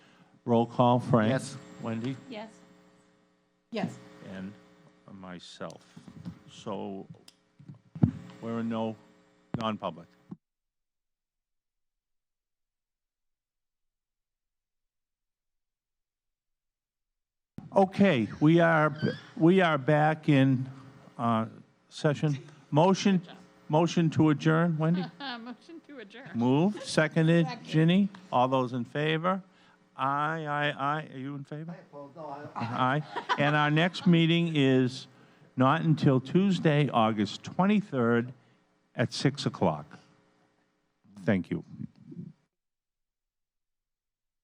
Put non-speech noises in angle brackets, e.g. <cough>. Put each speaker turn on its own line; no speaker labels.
Roll call, Frank?
Yes.
Wendy?
Yes.
Yes.
And myself. So we're in no, non-public. Okay, we are, we are back in uh, session. Motion, motion to adjourn, Wendy?
<laughs> Motion to adjourn.
Moved, seconded, Ginny, all those in favor? Aye, aye, aye, are you in favor? Aye, Uh-huh. and our next meeting is not until Tuesday, August 23rd at 6 o'clock. Thank you.